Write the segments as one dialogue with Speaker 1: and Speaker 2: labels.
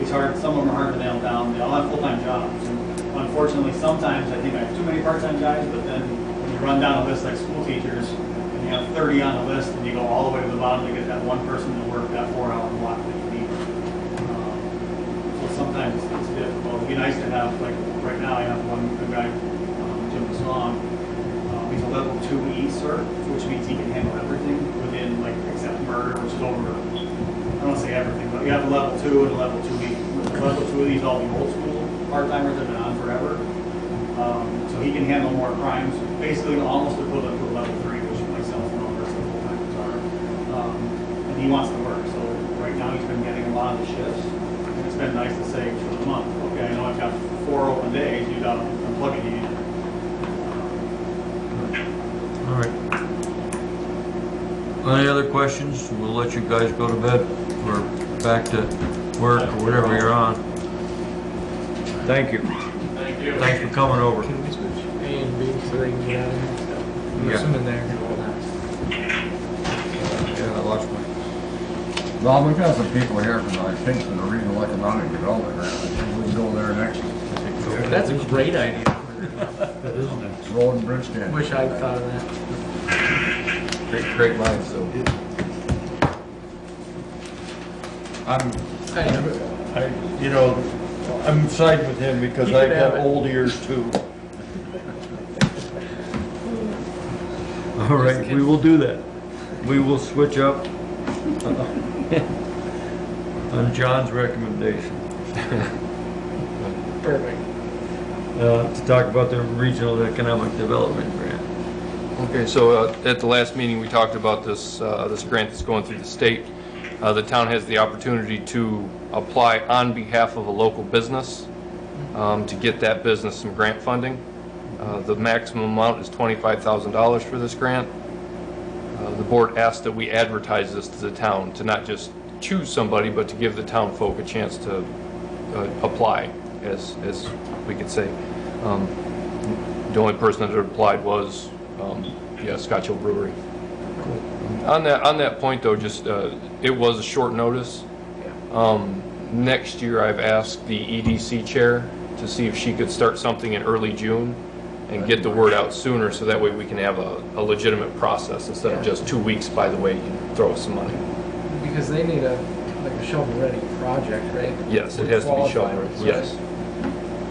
Speaker 1: it's hard, some of them are hard to nail down, they all have full-time jobs. And Unfortunately, sometimes I think I have too many part-time jobs, but then when you run down a list like school teachers, and you have thirty on the list, and you go all the way to the bottom to get that one person to work that four-hour block that you need. Um, So sometimes it's- it's difficult, it'd be nice to have, like, right now, I have one, a guy, um, Jim Song, um, He's a level two E cert, which means he can handle everything within, like, except murder, which is over, I don't wanna say everything, but you have a level two and a level two E. Level two of these, all the old school part-timers have been on forever. Um, So he can handle more crimes, basically almost equivalent to a level three, which myself and all the rest of the full-timers are. Um, And he wants to work, so right now he's been getting a lot of the shifts. And it's been nice to say for the month, okay, I know I've got four open days, you got, I'm plugging you in.
Speaker 2: All right. Any other questions? We'll let you guys go to bed or back to work or whatever you're on. Thank you.
Speaker 1: Thank you.
Speaker 2: Thanks for coming over.
Speaker 3: Can we switch A and B so they can get out of here? I'm
Speaker 2: Yeah.
Speaker 3: assuming they're gonna hold on.
Speaker 2: Yeah, I lost my,
Speaker 4: Well, we've got some people here from, I think, from the Regional Economic Development Grant. I think we can go there next.
Speaker 3: That's a great idea.
Speaker 4: Road and Bridge Stand.
Speaker 3: Wish I'd thought of that.
Speaker 4: Great, great line, so.
Speaker 2: I'm,
Speaker 3: I know.
Speaker 2: I, you know, I'm siding with him because
Speaker 3: You could
Speaker 2: I got
Speaker 3: have it.
Speaker 2: old ears too. All right, we will do that. We will switch up uh, on John's recommendation.
Speaker 3: Perfect.
Speaker 2: uh, to talk about the regional economic development grant.
Speaker 5: Okay, so uh, at the last meeting, we talked about this, uh, this grant that's going through the state. Uh, The town has the opportunity to apply on behalf of a local business um, to get that business some grant funding. Uh, The maximum amount is $25,000 for this grant. Uh, The board asked that we advertise this to the town, to not just choose somebody, but to give the town folk a chance to uh, apply, as, as we could say. Um, the only person that had applied was, um, yeah, Scotch Hill Brewery. On that, on that point though, just, uh, it was a short notice. Um, next year I've asked the EDC chair to see if she could start something in early June and get the word out sooner, so that way we can have a, a legitimate process instead of just two weeks, by the way, you throw us some money.
Speaker 3: Because they need a, like a shovel-ready project, right?
Speaker 5: Yes, it has to be
Speaker 3: Qualify,
Speaker 5: shovel,
Speaker 3: right?
Speaker 5: yes.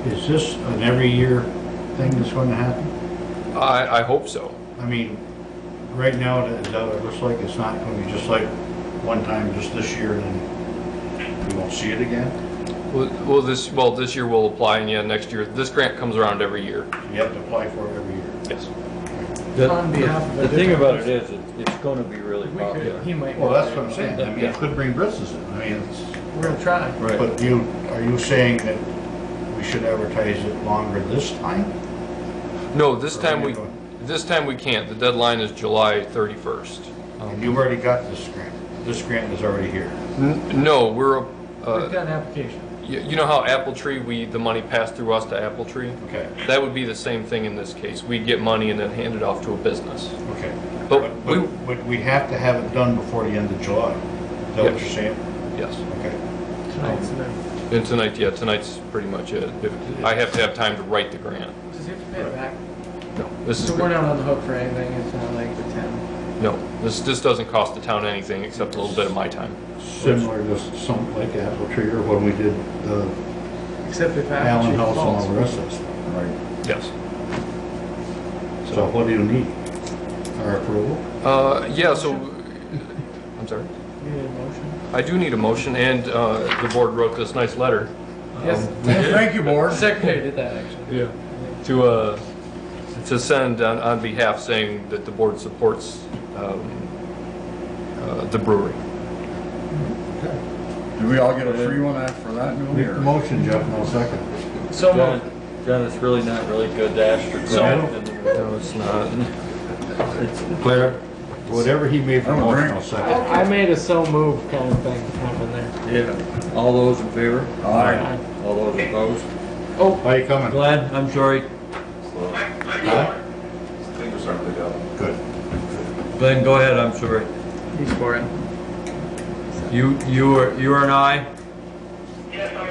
Speaker 6: Is this an every year thing that's going to happen?
Speaker 5: I, I hope so.
Speaker 6: I mean, right now, it it looks like it's not going to be just like one time just this year and then we won't see it again.
Speaker 5: Well, well, this, well, this year we'll apply, and yeah, next year, this grant comes around every year.
Speaker 6: You have to apply for it every year.
Speaker 5: Yes.
Speaker 2: The-
Speaker 3: On behalf of a
Speaker 2: The thing
Speaker 3: different-
Speaker 2: about it is, it- it's gonna be really
Speaker 3: We could,
Speaker 2: popular.
Speaker 3: he might.
Speaker 6: Well, that's what I'm saying. I mean,
Speaker 2: Yeah.
Speaker 6: it could bring business in. I mean, it's,
Speaker 3: We're gonna try.
Speaker 2: Right.
Speaker 6: but you, are you saying that we should advertise it longer this time?
Speaker 5: No, this
Speaker 6: Or
Speaker 5: time
Speaker 6: we
Speaker 5: we,
Speaker 6: can
Speaker 5: this time we can't. The deadline is July Um, 31st.
Speaker 6: And you've already got this grant. This grant is already here.
Speaker 5: N- No, we're,
Speaker 3: We've
Speaker 5: uh,
Speaker 3: got an application.
Speaker 5: you you know how Apple Tree, we, the money passed through us to Apple Tree?
Speaker 6: Okay,
Speaker 5: That would be the same thing in this case. We'd get money and then hand it off to a business.
Speaker 6: okay.
Speaker 5: But
Speaker 6: But,
Speaker 5: we,
Speaker 6: but but we have to have it done before the end of July. Is that
Speaker 5: Yeah.
Speaker 6: what you're saying?
Speaker 5: yes.
Speaker 6: Okay.
Speaker 5: oh.
Speaker 3: Tonight's the,
Speaker 5: And tonight, yeah, tonight's pretty much it. If- I have to have time to write the grant.
Speaker 3: does he have to pay it back?
Speaker 5: No, this is,
Speaker 3: So we're not on the hook for anything, it's not like the town.
Speaker 5: no, this, this doesn't cost the town anything except a little bit of my time.
Speaker 6: similar to something like Apple Tree or when we did the
Speaker 3: Except if
Speaker 6: Allen
Speaker 3: Apple Tree
Speaker 6: House and all the
Speaker 3: falls.
Speaker 6: rest of us.
Speaker 4: Right.
Speaker 5: Yes.
Speaker 6: So what do you need? Our approval?
Speaker 5: Uh, yeah, so, I'm sorry.
Speaker 3: We need a motion.
Speaker 5: I do need a motion, and uh, the board wrote this nice letter.
Speaker 3: Yes,
Speaker 4: Thank you,
Speaker 3: our
Speaker 4: board.
Speaker 3: secretary did that, actually.
Speaker 5: Um, Yeah. To, uh, to send on- on behalf saying that the board supports um, uh, the brewery.
Speaker 4: Do we all get a free one after for that new
Speaker 6: Make
Speaker 4: year?
Speaker 6: the motion, Jeff, and I'll second.
Speaker 3: So
Speaker 2: John,
Speaker 3: moved.
Speaker 2: John, it's really not really good to ask for grant. No, it's not. Claire?
Speaker 6: Whatever he made for
Speaker 4: I don't
Speaker 6: motion,
Speaker 4: drink.
Speaker 6: I'll second.
Speaker 3: I I made a so move kind of thing happen there.
Speaker 2: Yeah. All those in favor?
Speaker 4: Aye.
Speaker 2: All those opposed?
Speaker 3: Oh.
Speaker 6: How you coming?
Speaker 2: Glenn, I'm sorry,
Speaker 6: Huh?
Speaker 7: Things are starting to pick up.
Speaker 6: Good.
Speaker 2: Glenn, go ahead, I'm sorry.
Speaker 3: He's for it.
Speaker 2: You, you are, you are an aye?